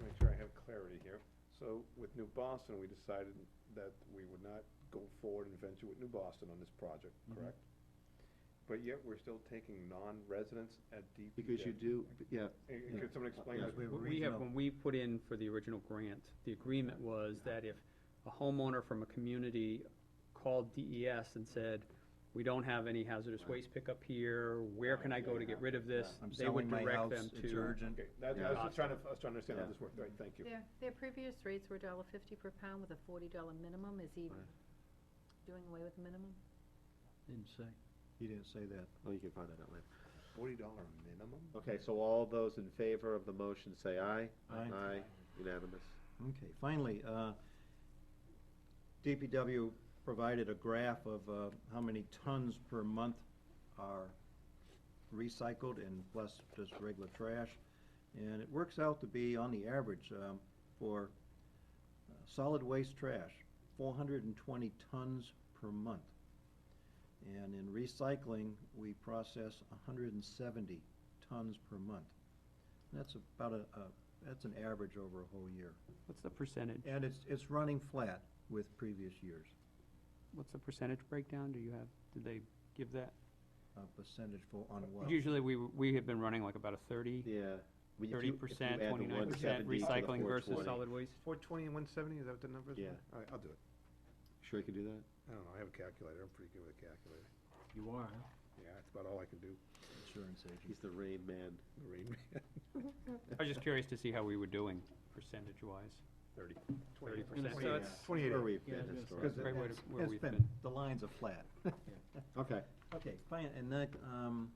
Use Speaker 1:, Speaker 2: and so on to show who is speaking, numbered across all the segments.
Speaker 1: make sure I have clarity here. So with New Boston, we decided that we would not go forward and venture with New Boston on this project,
Speaker 2: Mhm.
Speaker 1: correct? But yet we're still taking non-residents at DPJ.
Speaker 2: Because you do, yeah,
Speaker 1: And- and
Speaker 2: yeah.
Speaker 1: Could someone explain
Speaker 2: Yeah,
Speaker 1: that?
Speaker 2: we-
Speaker 3: What We have, when we put in for the original grant, the agreement was that if a homeowner from a community called DES and said, we don't have any hazardous waste pickup here, where can I go to get rid of this?
Speaker 2: I'm
Speaker 3: They would
Speaker 2: selling my
Speaker 3: direct
Speaker 2: house,
Speaker 3: them
Speaker 2: it's
Speaker 3: to,
Speaker 2: urgent.
Speaker 1: Okay, that, I was just trying to, I was trying to understand how
Speaker 2: Yeah.
Speaker 1: this worked, right, thank you.
Speaker 4: Their, their previous rates were a dollar fifty per pound with a forty dollar minimum, is he
Speaker 2: Right.
Speaker 4: doing away with the minimum?
Speaker 3: Didn't say.
Speaker 2: He didn't say that. Oh, you can find that out later.
Speaker 1: Forty dollar minimum?
Speaker 5: Okay, so all those in favor of the motion say aye.
Speaker 2: Aye.
Speaker 5: Aye, unanimous.
Speaker 2: Okay, finally, uh, DPW provided a graph of uh, how many tons per month are recycled and plus just regular trash. And it works out to be, on the average, um, for uh, solid waste trash, four hundred and twenty tons per month. And in recycling, we process hundred and seventy tons per month. And That's about a, a- that's an average over a whole year.
Speaker 3: What's the percentage?
Speaker 2: And it's, it's running flat with previous years,
Speaker 3: What's the percentage breakdown? Do you have, did they give that?
Speaker 2: uh, percentage for, on what?
Speaker 3: Usually, we, we have been running like about a thirty,
Speaker 5: Yeah. We- if you- if
Speaker 3: thirty
Speaker 5: you
Speaker 3: percent,
Speaker 5: add the
Speaker 3: twenty-nine percent
Speaker 5: 170 to the
Speaker 3: recycling versus
Speaker 5: 420.
Speaker 3: solid waste.
Speaker 1: Four twenty and one seventy, is that what the number is?
Speaker 5: Yeah.
Speaker 1: All right, I'll do it.
Speaker 5: Sure you can do that?
Speaker 1: I don't know, I have a calculator, I'm pretty good with a calculator.
Speaker 3: You are,
Speaker 1: Yeah, that's about all I can do,
Speaker 2: Insurance agent.
Speaker 5: He's the rain man.
Speaker 1: the rain man.
Speaker 3: I was just curious to see how we were doing percentage-wise.
Speaker 1: Thirty.
Speaker 3: 30%. So it's-
Speaker 1: Twenty-eight.
Speaker 5: Where we've
Speaker 3: Yeah, I
Speaker 5: been
Speaker 3: was gonna say.
Speaker 2: Because
Speaker 5: historically.
Speaker 3: Right where
Speaker 2: it's-
Speaker 3: to- where
Speaker 2: it's
Speaker 3: we've
Speaker 2: been-
Speaker 3: been.
Speaker 2: The lines are flat.
Speaker 5: Okay,
Speaker 2: Okay, fine, and that, um,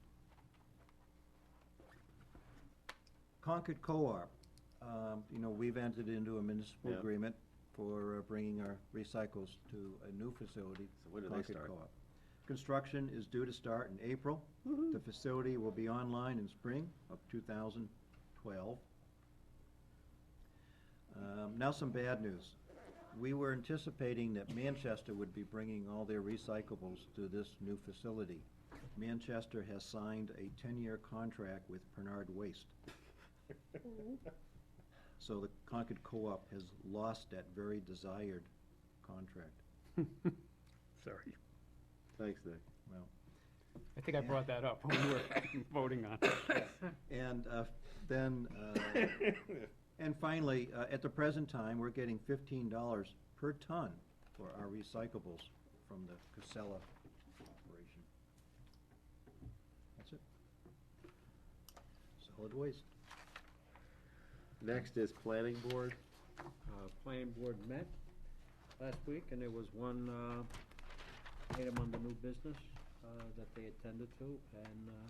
Speaker 2: Concord Co-op, um, you know, we've entered into a municipal
Speaker 5: Yeah.
Speaker 2: agreement for uh, bringing our recycles to a new facility.
Speaker 5: So when do they
Speaker 2: Concord
Speaker 5: start?
Speaker 2: Co-op. Construction is due to start in April.
Speaker 5: Mm-hmm.
Speaker 2: The facility will be online in spring of two thousand twelve. Um, now some bad news. We were anticipating that Manchester would be bringing all their recyclables to this new facility. Manchester has signed a ten-year contract with Bernard Waste. So the Concord Co-op has lost that very desired contract.
Speaker 1: Sorry.
Speaker 5: thanks, Nick.
Speaker 2: Well,
Speaker 3: I think I brought that up when we were voting on it.
Speaker 2: and uh, then, uh, and finally, uh, at the present time, we're getting fifteen dollars per ton for our recyclables from the Casella operation. That's it. Solid waste.
Speaker 5: Next is planning board.
Speaker 6: uh, planning board met last week, and there was one, uh, item on the new business, uh, that they attended to, and, uh,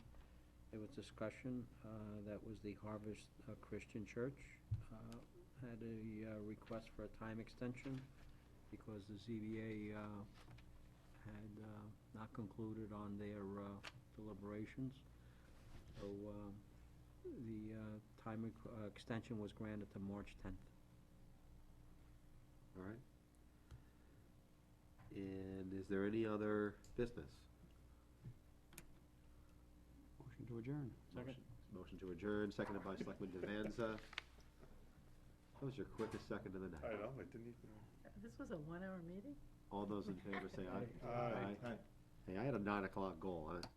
Speaker 6: there was discussion, uh, that was the Harvest uh, Christian Church, uh, had a, uh, request for a time extension because the ZBA, uh, had, uh, not concluded on their, uh, deliberations. So, uh, the, uh, time, requ- uh, extension was granted to March tenth.
Speaker 5: All right. And is there any other business?
Speaker 3: Motion to adjourn.
Speaker 6: Second.
Speaker 5: Motion- Motion to adjourn, seconded by Selectman Devanza. That was your quickest second of the
Speaker 1: I
Speaker 5: night.
Speaker 1: know, I didn't even.
Speaker 4: Uh, This was a one hour meeting?
Speaker 5: All those in favor say aye.
Speaker 1: Aye.
Speaker 5: Hey, I had a nine o'clock goal, huh?